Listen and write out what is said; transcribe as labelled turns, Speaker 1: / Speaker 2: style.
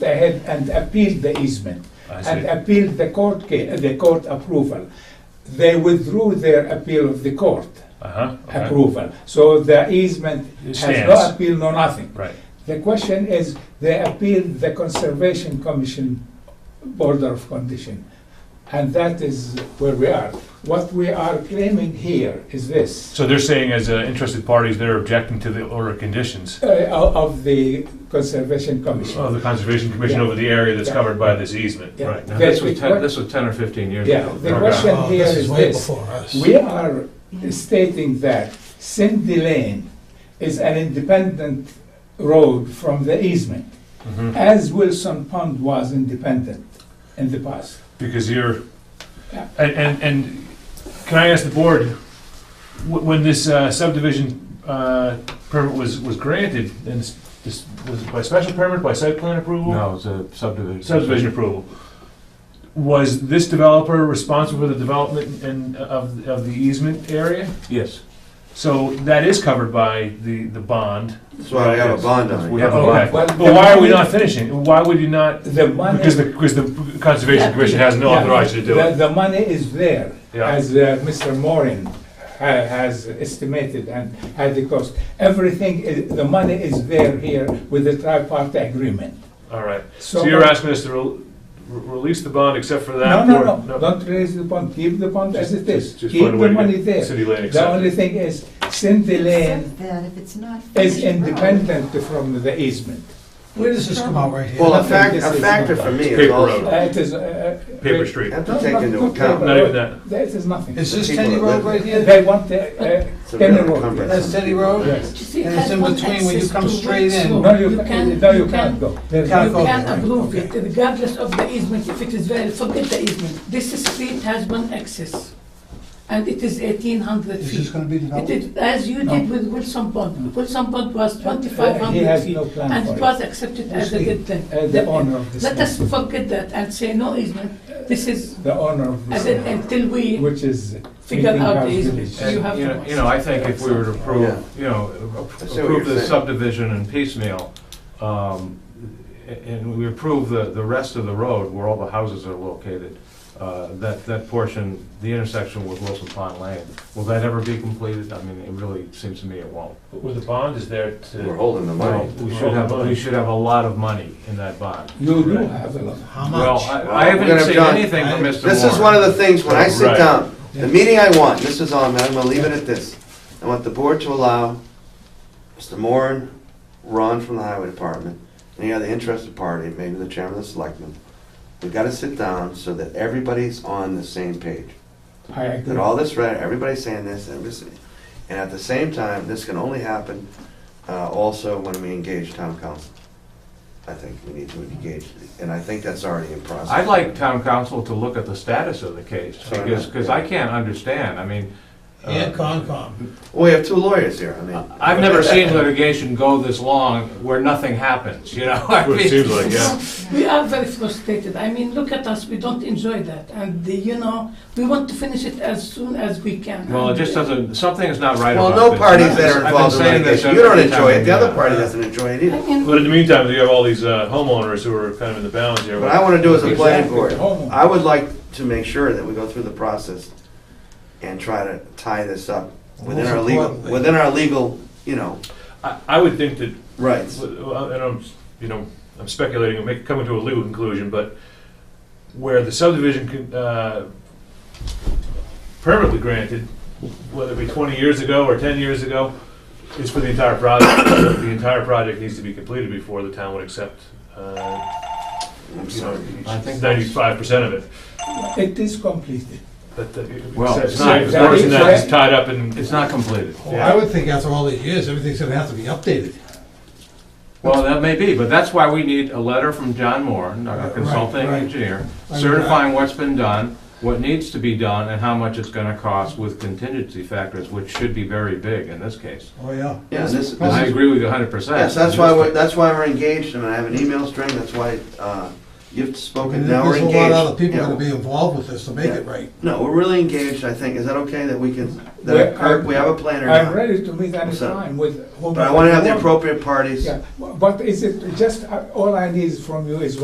Speaker 1: ahead and appealed the easement
Speaker 2: I
Speaker 1: and uh,
Speaker 2: see.
Speaker 1: appealed the court ca- the court approval. They withdrew their appeal of the court
Speaker 2: Uh-huh, okay.
Speaker 1: approval. So the easement
Speaker 2: It
Speaker 1: has
Speaker 2: stands.
Speaker 1: no appeal, no nothing.
Speaker 2: Right,
Speaker 1: The question is, they appealed the Conservation Commission border of condition. And that is where we are. What we are claiming here is this,
Speaker 2: so they're saying as uh, interested parties, they're objecting to the order of conditions
Speaker 1: uh, of of the Conservation Commission.
Speaker 2: of the Conservation Commission
Speaker 1: Yeah.
Speaker 2: over the area that's
Speaker 1: Yeah.
Speaker 2: covered by this easement.
Speaker 1: Yeah.
Speaker 2: Right.
Speaker 3: Now,
Speaker 1: The-
Speaker 3: this was
Speaker 1: the-
Speaker 3: ten, this was ten or fifteen years
Speaker 1: Yeah,
Speaker 3: ago.
Speaker 1: the
Speaker 2: Okay.
Speaker 1: question
Speaker 4: Oh,
Speaker 1: here
Speaker 4: this is
Speaker 1: is
Speaker 4: way
Speaker 1: this.
Speaker 4: before us.
Speaker 1: We are stating that Cindy Lane is an independent road from the easement,
Speaker 2: Mhm.
Speaker 1: as Wilson Pond was independent in the past.
Speaker 2: Because you're,
Speaker 1: Yeah.
Speaker 2: and, and, and can I ask the board, wh- when this uh, subdivision uh, permit was, was granted, and this, this, was it by special permit, by site plan approval?
Speaker 3: No, it was a subdivision.
Speaker 2: Subdivision approval. Was this developer responsible for the development and uh, of, of the easement area?
Speaker 3: Yes.
Speaker 2: So that is covered by the, the bond.
Speaker 5: That's why I have a bond on it.
Speaker 3: We have a
Speaker 2: Okay,
Speaker 3: bond.
Speaker 1: Well,
Speaker 2: but why are we not finishing? Why would you not,
Speaker 1: The money.
Speaker 2: because the, because the Conservation Commission has no
Speaker 1: Yeah.
Speaker 2: authority to do
Speaker 1: The-
Speaker 2: it.
Speaker 1: The money is there,
Speaker 2: Yeah.
Speaker 1: as uh, Mr. Morin ha- has estimated and had the cost. Everything, i- the money is there here with the tripartite agreement.
Speaker 2: All right.
Speaker 1: So
Speaker 2: So you're asking us to rel- re- release the bond except for
Speaker 1: No,
Speaker 2: that?
Speaker 1: no,
Speaker 2: or-
Speaker 1: no, don't raise the bond, keep the bond as it is,
Speaker 2: Just- just
Speaker 1: keep
Speaker 2: find a way
Speaker 1: the
Speaker 2: to get
Speaker 1: money there.
Speaker 2: City Lane
Speaker 1: The only
Speaker 2: accepted.
Speaker 1: thing is, Cindy Lane
Speaker 6: Except that if it's not
Speaker 1: is
Speaker 6: finished road-
Speaker 1: independent from the easement.
Speaker 4: Where does this come out right here?
Speaker 5: Well, a
Speaker 1: Nothing,
Speaker 5: fact,
Speaker 1: this
Speaker 5: a
Speaker 1: is
Speaker 5: factor
Speaker 1: not
Speaker 5: for me is
Speaker 2: paper
Speaker 1: Uh,
Speaker 7: Oh.
Speaker 5: also,
Speaker 2: road.
Speaker 1: It is. uh, uh,
Speaker 2: Paper street.
Speaker 5: I have
Speaker 1: no,
Speaker 5: to take
Speaker 1: not-
Speaker 5: into
Speaker 1: not paper.
Speaker 5: account.
Speaker 2: Not even that.
Speaker 1: That is nothing.
Speaker 4: Is this
Speaker 5: The people
Speaker 4: Teddy
Speaker 5: that
Speaker 4: Road
Speaker 5: live
Speaker 4: right here?
Speaker 1: They want the, uh,
Speaker 5: It's a
Speaker 1: Kenny
Speaker 5: real
Speaker 1: Road.
Speaker 5: encumbrance.
Speaker 4: That's Teddy Road?
Speaker 1: Yes.
Speaker 6: Just you
Speaker 4: And it's
Speaker 6: had
Speaker 4: in
Speaker 6: one
Speaker 4: between when you
Speaker 6: access
Speaker 4: come
Speaker 6: to
Speaker 4: straight
Speaker 6: Wexford.
Speaker 4: in.
Speaker 1: No, you,
Speaker 7: can-
Speaker 1: no, you
Speaker 7: you
Speaker 1: can't
Speaker 7: can-
Speaker 1: go. There's
Speaker 4: can't
Speaker 1: no-
Speaker 4: go.
Speaker 7: You can
Speaker 4: Right,
Speaker 7: approve it regardless of the easement, if it is valid, forget the easement. This street has one access, and it is eighteen hundred
Speaker 4: Is this
Speaker 7: feet.
Speaker 4: gonna be
Speaker 7: It
Speaker 4: developed?
Speaker 7: is, as you did with Wilson Pond, Wilson Pond was twenty-five
Speaker 1: He
Speaker 7: hundred
Speaker 1: has
Speaker 7: feet,
Speaker 1: no plan
Speaker 7: and
Speaker 1: for
Speaker 7: it
Speaker 1: it.
Speaker 7: was accepted as a good thing.
Speaker 1: Uh, the owner of this
Speaker 7: Let us
Speaker 1: land.
Speaker 7: forget that and say no easement, this is,
Speaker 1: The owner of this,
Speaker 7: as in,
Speaker 1: land,
Speaker 7: until we
Speaker 1: which is.
Speaker 7: figure
Speaker 1: Meeting
Speaker 7: out
Speaker 1: House
Speaker 7: the easement.
Speaker 1: Village.
Speaker 3: And,
Speaker 7: You
Speaker 3: you
Speaker 7: have to
Speaker 3: know,
Speaker 7: watch.
Speaker 3: you know, I think if we were to
Speaker 5: Yeah.
Speaker 3: approve, you know,
Speaker 5: I see what
Speaker 3: approve
Speaker 5: you're
Speaker 3: the
Speaker 5: saying.
Speaker 3: subdivision in piecemeal, um, a- and we approve the, the rest of the road where all the houses are located, uh, that, that portion, the intersection with Wilson Pond Lane, will that ever be completed? I mean, it really seems to me it won't.
Speaker 2: Well, the bond is there
Speaker 5: We're
Speaker 2: to,
Speaker 5: holding the
Speaker 3: Well,
Speaker 5: money.
Speaker 3: We should have, we should have a lot of money in that bond.
Speaker 1: You do have a lot.
Speaker 4: How
Speaker 3: Well,
Speaker 4: much?
Speaker 3: I- I
Speaker 5: We're
Speaker 3: haven't
Speaker 5: gonna
Speaker 3: seen
Speaker 5: have John.
Speaker 3: anything from Mr.
Speaker 5: This is one of the things, when I sit
Speaker 2: Right.
Speaker 5: down, the meeting I want, this is on, man, I'm gonna leave it at this. I want the board to allow Mr. Moran, Ron from the highway department, any other interested party, maybe the chairman of the selectmen. We gotta sit down so that everybody's on the same page.
Speaker 1: I agree.
Speaker 5: That all this, right, everybody's saying this, and this, and at the same time, this can only happen uh, also when we engage town council. I think we need to engage, and I think that's already in process.
Speaker 3: I'd like town council to look at the status of the case,
Speaker 5: Sorry,
Speaker 3: because,
Speaker 5: yeah.
Speaker 3: because I can't understand, I mean. uh,
Speaker 4: Yeah, Concom.
Speaker 5: Well, we have two lawyers here, I mean.
Speaker 3: I've never seen litigation go this long where nothing happens, you know? I
Speaker 2: what it
Speaker 3: mean,
Speaker 2: seems like, yeah.
Speaker 7: We are very frustrated. I mean, look at us, we don't enjoy that. And, uh, you know, we want to finish it as soon as we can.
Speaker 3: Well, it
Speaker 7: And,
Speaker 3: just
Speaker 7: uh,
Speaker 3: doesn't, something is not right
Speaker 5: Well,
Speaker 3: about this.
Speaker 5: no parties that
Speaker 3: I've
Speaker 5: are
Speaker 3: been
Speaker 5: involved in
Speaker 3: saying this
Speaker 5: litigation, you don't
Speaker 3: every time
Speaker 5: enjoy it,
Speaker 3: we
Speaker 5: the other
Speaker 3: meet.
Speaker 5: party doesn't enjoy it
Speaker 7: I
Speaker 5: either.
Speaker 7: mean,
Speaker 2: but in the meantime, you have all these uh, homeowners who are kind of in the balance here.
Speaker 5: What I wanna do as a planning
Speaker 1: Exactly,
Speaker 5: board,
Speaker 1: the homeowner.
Speaker 5: I would like to make sure that we go through the process and try to tie this up within
Speaker 4: Most
Speaker 5: our legal,
Speaker 4: importantly-
Speaker 5: within our legal, you know,
Speaker 2: I, I would think that
Speaker 5: rights.
Speaker 2: Well, And I'm, you know, I'm speculating, I'm make- coming to a legal conclusion, but where the subdivision con- uh, permit was granted, whether it be 20 years ago or 10 years ago, is for the entire project. The entire project needs to be completed before the town would accept, uh,
Speaker 5: I'm
Speaker 2: you know,
Speaker 5: sorry.
Speaker 3: I think that's-
Speaker 2: 95% of it.
Speaker 1: It is completed.
Speaker 2: But the-
Speaker 3: Well,
Speaker 2: except-
Speaker 3: it's not-
Speaker 2: except for
Speaker 1: it's not-
Speaker 2: that it's tied up in,
Speaker 3: It's not completed.
Speaker 4: I would think after all these years, everything's gonna have to be updated.
Speaker 3: Well, that may be, but that's why we need a letter from John Moore, our
Speaker 4: Right,
Speaker 3: consulting
Speaker 4: right.
Speaker 3: engineer,
Speaker 4: I mean,
Speaker 3: certifying what's been done, what needs to be done, and how much it's gonna cost with contingency factors, which should be very big in this case.
Speaker 4: Oh, yeah.
Speaker 5: Yeah, this,
Speaker 3: And I
Speaker 5: this is
Speaker 3: agree with you hundred percent.
Speaker 5: Yes, that's why, we're- that's why we're engaged, and I have an email string, that's why uh, you've
Speaker 4: I mean,
Speaker 5: spoken, now we're
Speaker 4: There's a lot
Speaker 5: engaged.
Speaker 4: of other people
Speaker 5: Yeah.
Speaker 4: gonna be involved with this to make it right.
Speaker 5: No, we're really engaged, I think, is that okay that we can,
Speaker 1: We're-
Speaker 5: that Kirk, we have a planner
Speaker 1: I'm
Speaker 5: now?
Speaker 1: ready to meet any
Speaker 5: So-
Speaker 1: time with whom.
Speaker 5: But I wanna have the appropriate parties.
Speaker 1: Yeah, but is it just, uh, all I need from you is